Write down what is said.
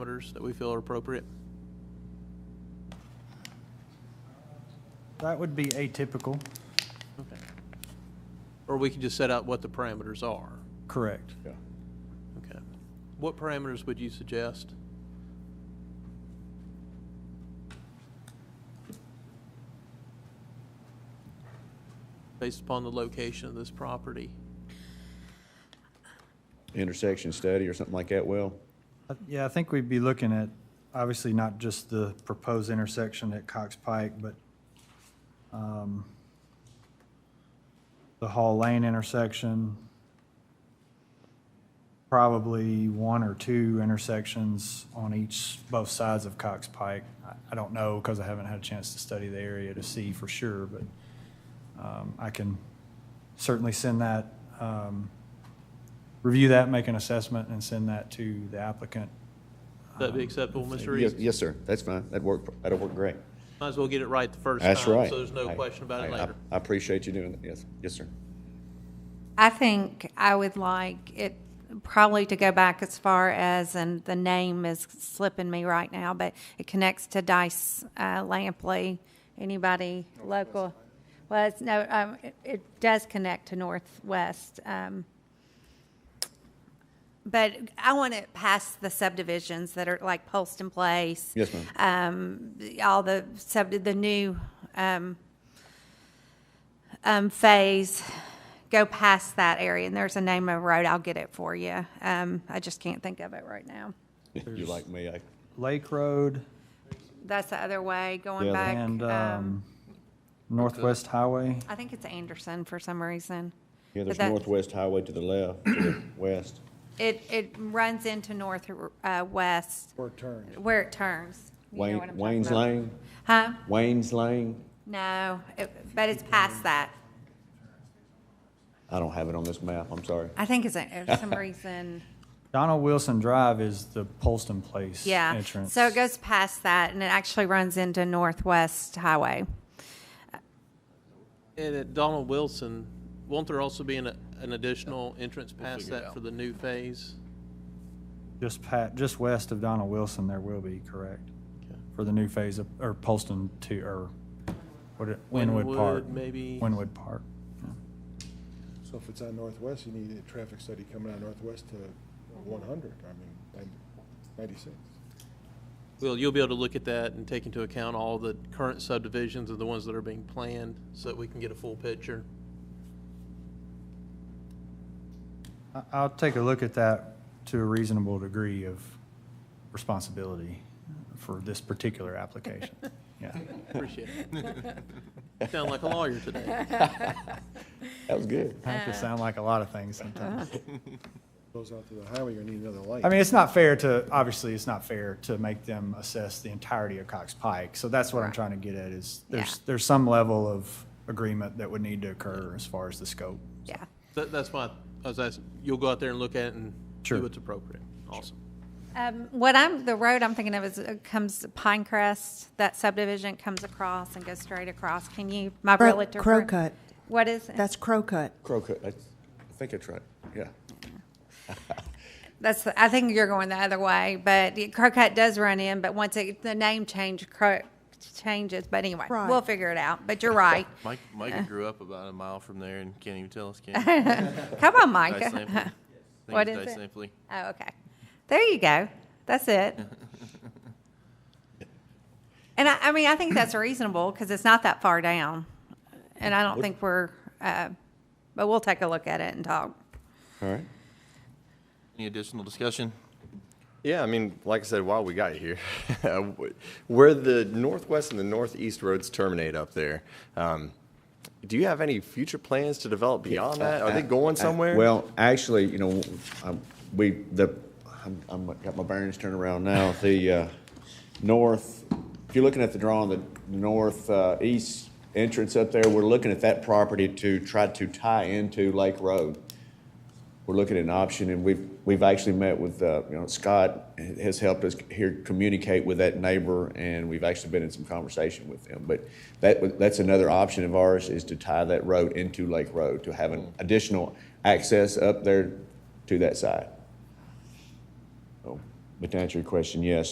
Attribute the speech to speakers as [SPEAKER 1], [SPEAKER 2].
[SPEAKER 1] parameters that we feel are appropriate?
[SPEAKER 2] That would be atypical,
[SPEAKER 1] Okay. Or we can just set out what the parameters are.
[SPEAKER 2] correct.
[SPEAKER 3] Yeah.
[SPEAKER 1] Okay. What parameters would you suggest? Based upon the location of this property?
[SPEAKER 3] Intersection study or something like that, Will?
[SPEAKER 2] Uh, Yeah, I think we'd be looking at, obviously not just the proposed intersection at Cox Pike, but um, the Hall Lane intersection, probably one or two intersections on each, both sides of Cox Pike. I- I don't know, because I haven't had a chance to study the area to see for sure, but um, I can certainly send that um, review that, make an assessment, and send that to the applicant.
[SPEAKER 1] That'd
[SPEAKER 3] Um,
[SPEAKER 1] be acceptable, Mr.
[SPEAKER 3] Yes,
[SPEAKER 1] Reeves?
[SPEAKER 3] yes, sir. That's fine. That'd work, that'd work great.
[SPEAKER 1] Might as well get it right the first time.
[SPEAKER 3] That's right.
[SPEAKER 1] So there's no
[SPEAKER 3] I-
[SPEAKER 1] question about it
[SPEAKER 3] I- I-
[SPEAKER 1] later.
[SPEAKER 3] I appreciate you doing that. Yes, yes, sir.
[SPEAKER 4] I think I would like it probably to go back as far as, and the name is slipping me right now, but it connects to Dice uh, Lampley. Anybody local? Well, it's no, um, it, it does connect to Northwest. Um, but I want it past the subdivisions that are like Polston Place.
[SPEAKER 3] Yes, ma'am.
[SPEAKER 4] Um, all the sub, the new, um, um, phase, go past that area, and there's a name of a road, I'll get it for you. Um, I just can't think of it right now.
[SPEAKER 3] You like me, I,
[SPEAKER 2] Lake Road
[SPEAKER 4] That's the other way, going
[SPEAKER 3] Yeah,
[SPEAKER 4] back,
[SPEAKER 2] and
[SPEAKER 4] um,
[SPEAKER 2] um, Northwest Highway.
[SPEAKER 4] I think it's Anderson for some reason.
[SPEAKER 3] yeah,
[SPEAKER 4] But
[SPEAKER 3] there's
[SPEAKER 4] that-
[SPEAKER 3] Northwest Highway to the left, to the west.
[SPEAKER 4] It, it runs into north, uh, west,
[SPEAKER 5] Or turn.
[SPEAKER 4] where it turns. You know
[SPEAKER 3] Wayne,
[SPEAKER 4] what I'm talking
[SPEAKER 3] Wayne's
[SPEAKER 4] about.
[SPEAKER 3] Lane,
[SPEAKER 4] Huh?
[SPEAKER 3] Wayne's Lane.
[SPEAKER 4] No, it- but it's past that.
[SPEAKER 3] I don't have it on this map, I'm sorry.
[SPEAKER 4] I think it's, a- for some reason.
[SPEAKER 2] Donald Wilson Drive is the Polston Place
[SPEAKER 4] Yeah,
[SPEAKER 2] entrance.
[SPEAKER 4] so it goes past that, and it actually runs into Northwest Highway.
[SPEAKER 1] And at Donald Wilson, won't there also be an, an additional entrance past that for the new phase?
[SPEAKER 2] Just pat, just west of Donald Wilson, there will be, correct? For the new phase of, or Polston to, or what, it- Winwood Park.
[SPEAKER 1] Maybe.
[SPEAKER 2] Winwood Park.
[SPEAKER 5] So if it's on Northwest, you need a traffic study coming on Northwest to one hundred, I mean, nine- ninety-six.
[SPEAKER 1] Well, you'll be able to look at that and take into account all the current subdivisions and the ones that are being planned so that we can get a full picture.
[SPEAKER 2] I, I'll take a look at that to a reasonable degree of responsibility for this particular application. Yeah.
[SPEAKER 1] Appreciate it. You Sound like a lawyer today.
[SPEAKER 3] That was good.
[SPEAKER 2] I have to sound like a lot of things sometimes.
[SPEAKER 5] Goes out to the highway, you're gonna need another light.
[SPEAKER 2] I mean, it's not fair to, obviously, it's not fair to make them assess the entirety of Cox Pike. So that's what I'm trying to get at is there's,
[SPEAKER 4] Yeah.
[SPEAKER 2] there's some level of agreement that would need to occur as far as the scope.
[SPEAKER 4] Yeah.
[SPEAKER 1] That, that's why I was asking, you'll go out there and look at it and do
[SPEAKER 2] Sure.
[SPEAKER 1] what's appropriate. Awesome.
[SPEAKER 4] Um, what I'm, the road I'm thinking of is, uh, comes Pinecrest, that subdivision comes across and goes straight across. Can you, my
[SPEAKER 6] Crow-
[SPEAKER 4] realtor. friend-
[SPEAKER 6] Crowcut.
[SPEAKER 4] What is it?
[SPEAKER 6] That's Crowcut.
[SPEAKER 3] Crowcut, that's- I think that's right, yeah.
[SPEAKER 4] That's, I think you're going the other way, but the Crowcut does run in, but once it, the name change, Crow, changes, but anyway,
[SPEAKER 6] Right.
[SPEAKER 4] we'll figure it out, but you're right.
[SPEAKER 7] Mike, Micah grew up about a mile from there and can't even tell us, can he?
[SPEAKER 4] Come on,
[SPEAKER 7] Dice Lampley. I
[SPEAKER 4] Micah.
[SPEAKER 7] think
[SPEAKER 4] What
[SPEAKER 7] it's
[SPEAKER 4] is
[SPEAKER 7] Dice
[SPEAKER 4] it?
[SPEAKER 7] Lampley.
[SPEAKER 4] Oh, okay. There you go. That's it. And I, I mean, I think that's reasonable because it's not that far down. And I don't think we're, uh, but we'll take a look at it and talk.
[SPEAKER 3] All right.
[SPEAKER 7] Any additional discussion?
[SPEAKER 8] Yeah, I mean, like I said, while we got you here, where the northwest and the northeast roads terminate up there, um, do you have any future plans to develop beyond that? Are they going somewhere?
[SPEAKER 3] Well, actually, you know, um, we, the, I'm, I'm, got my bearings turned around now. The, uh, north, if you're looking at the drawing, the north, uh, east entrance up there, we're looking at that property to try to tie into Lake Road. We're looking at an option and we've, we've actually met with, uh, you know, Scott has helped us here communicate with that neighbor and we've actually been in some conversation with them. But that, that's another option of ours is to tie that road into Lake Road, to have an additional access up there to that side. So, But to answer your question, yes,